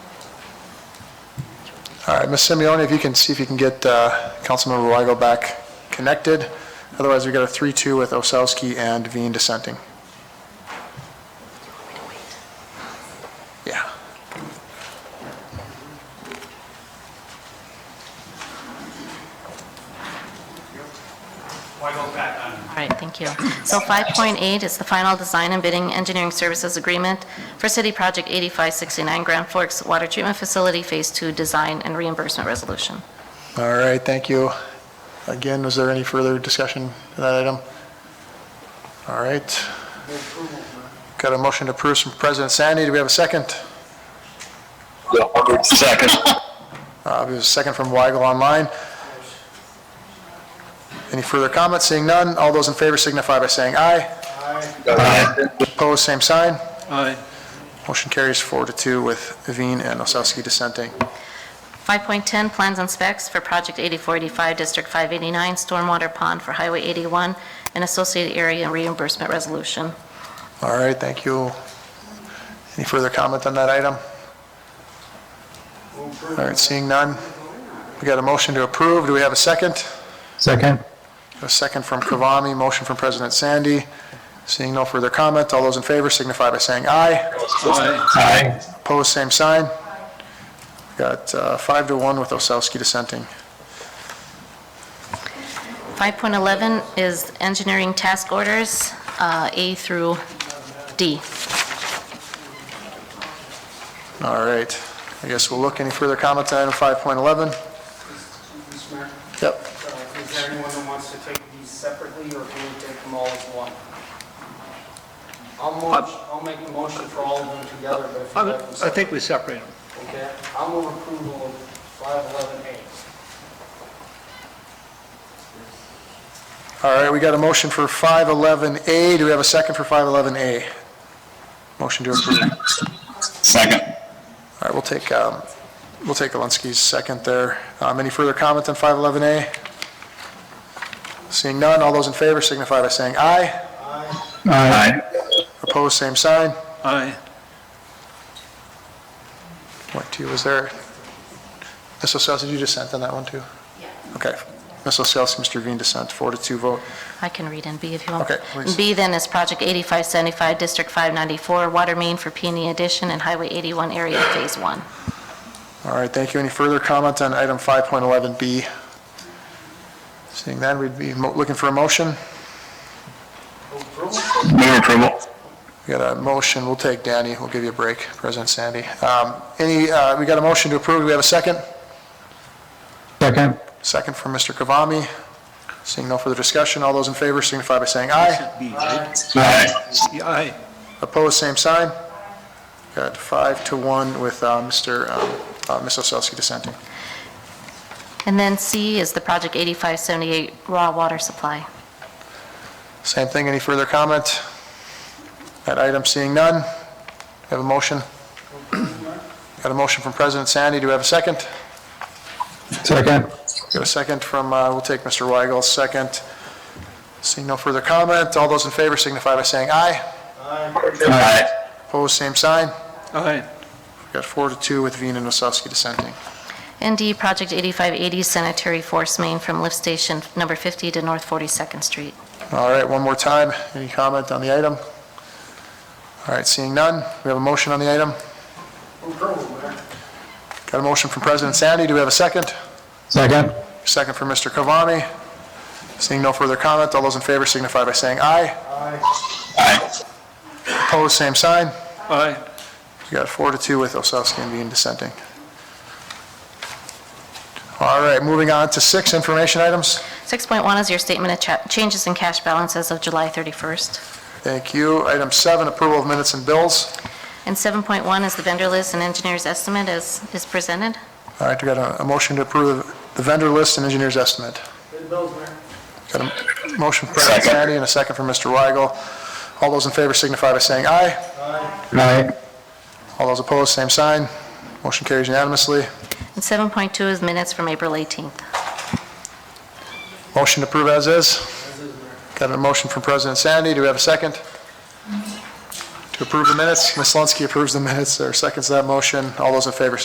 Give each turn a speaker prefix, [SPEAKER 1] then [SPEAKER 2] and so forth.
[SPEAKER 1] All right, Ms. Simeoni, if you can, see if you can get uh, Councilmember Weigel back connected. Otherwise, we've got a 3-2 with Osowski and Veen dissenting. Yeah.
[SPEAKER 2] All right, thank you. So 5.8 is the final design and bidding engineering services agreement for City Project 8569 Grand Forks Water Treatment Facility Phase 2 Design and Reimbursement Resolution.
[SPEAKER 1] All right, thank you. Again, was there any further discussion to that item? All right. Got a motion to approve from President Sandy. Do we have a second?
[SPEAKER 3] Hubbard, second.
[SPEAKER 1] Uh, There's a second from Weigel online. Any further comments? Seeing none, all those in favor signify by saying aye. Opposed, same sign.
[SPEAKER 4] Aye.
[SPEAKER 1] Motion carries four to two with Veen and Osowski dissenting.
[SPEAKER 2] 5.10, plans and specs for Project 8485 District 589 Stormwater Pond for Highway 81 and Associated Area Reimbursement Resolution.
[SPEAKER 1] All right, thank you. Any further comment on that item? All right, seeing none. We got a motion to approve. Do we have a second?
[SPEAKER 3] Second.
[SPEAKER 1] A second from Kavami, motion from President Sandy. Seeing no further comment, all those in favor signify by saying aye.
[SPEAKER 4] Aye.
[SPEAKER 3] Aye.
[SPEAKER 1] Opposed, same sign. Got uh, five to one with Osowski dissenting.
[SPEAKER 2] 5.11 is engineering task orders, uh, A through D.
[SPEAKER 1] All right, I guess we'll look. Any further comments on item 5.11?
[SPEAKER 5] Mr. Mayor,
[SPEAKER 1] Yep.
[SPEAKER 5] uh, is there anyone that wants to take these separately, or can we take them all as one? I'll move, I'll make a motion for all of them together, but if you
[SPEAKER 4] I'm-
[SPEAKER 5] like them
[SPEAKER 4] Uh, I
[SPEAKER 5] separate,
[SPEAKER 4] think we separate them.
[SPEAKER 5] okay? I'll move approval of five eleven A.
[SPEAKER 1] All right, we got a motion for 511A. Do we have a second for 511A? Motion to approve. All
[SPEAKER 3] Second.
[SPEAKER 1] right, we'll take, um, we'll take Alinsky's second there. Um, Any further comments on 511A? Seeing none, all those in favor signify by saying aye.
[SPEAKER 3] Aye.
[SPEAKER 1] Opposed, same sign.
[SPEAKER 4] Aye.
[SPEAKER 1] Point two, was there, Ms. Oselsky, did you dissent on that one too? Yeah. Okay. Ms. Oselsky, Mr. Veen dissent, four to two vote.
[SPEAKER 2] I can read in B if you want.
[SPEAKER 1] Okay, please.
[SPEAKER 2] B then is Project 8575, District 594, Water Main for Peony Addition and Highway 81 Area Phase 1.
[SPEAKER 1] All right, thank you. Any further comment on item 5.11B? Seeing that, we'd be mo- looking for a motion.
[SPEAKER 5] Approval?
[SPEAKER 3] Move approval.
[SPEAKER 1] We got a motion, we'll take Danny, we'll give you a break, President Sandy. Um, Any, uh, we got a motion to approve, do we have a second?
[SPEAKER 3] Second.
[SPEAKER 1] Second from Mr. Kavami. Seeing no further discussion, all those in favor signify by saying aye.
[SPEAKER 4] B, right?
[SPEAKER 3] Aye.
[SPEAKER 4] Aye.
[SPEAKER 1] Opposed, same sign. Got five to one with uh, Mr., um, uh, Ms. Osowski dissenting.
[SPEAKER 2] And then C is the Project 8578, Raw Water Supply.
[SPEAKER 1] Same thing, any further comment? That item, seeing none. Have a motion? Got a motion from President Sandy, do we have a second?
[SPEAKER 3] Second.
[SPEAKER 1] Got a second from, uh, we'll take Mr. Weigel's second. Seeing no further comment, all those in favor signify by saying aye.
[SPEAKER 3] Aye.
[SPEAKER 1] Opposed, same sign.
[SPEAKER 4] Aye.
[SPEAKER 1] Got four to two with Veen and Osowski dissenting.
[SPEAKER 2] And D, Project 8580, Sanitary Force Main from Lift Station Number 50 to North 42nd Street.
[SPEAKER 1] All right, one more time, any comment on the item? All right, seeing none, we have a motion on the item.
[SPEAKER 5] Approval, Mayor.
[SPEAKER 1] Got a motion from President Sandy, do we have a second?
[SPEAKER 3] Second.
[SPEAKER 1] Second from Mr. Cavani. Seeing no further comment, all those in favor signify by saying aye.
[SPEAKER 3] Aye.
[SPEAKER 1] Opposed, same sign.
[SPEAKER 4] Aye.
[SPEAKER 1] You got four to two with Osowski and Dean dissenting. All right, moving on to six, information items.
[SPEAKER 2] 6.1 is your statement of cha- changes in cash balance as of July 31st.
[SPEAKER 1] Thank you. Item seven, approval of minutes and bills.
[SPEAKER 2] And 7.1 is the vendor list and engineer's estimate as is presented.
[SPEAKER 1] All right, we got a- a motion to approve the vendor list and engineer's estimate.
[SPEAKER 5] Bid bills, Mayor.
[SPEAKER 1] Got a motion from President Sandy and a second from Mr. Weigel. All those in favor signify by saying aye.
[SPEAKER 3] Aye.
[SPEAKER 1] All those opposed, same sign. Motion carries unanimously.
[SPEAKER 2] And 7.2 is minutes from April 18th.
[SPEAKER 1] Motion to approve as is. Got a motion from President Sandy. Do we have a second? To approve the minutes? Ms. Lunskey approves the minutes, or seconds that motion. All those in favor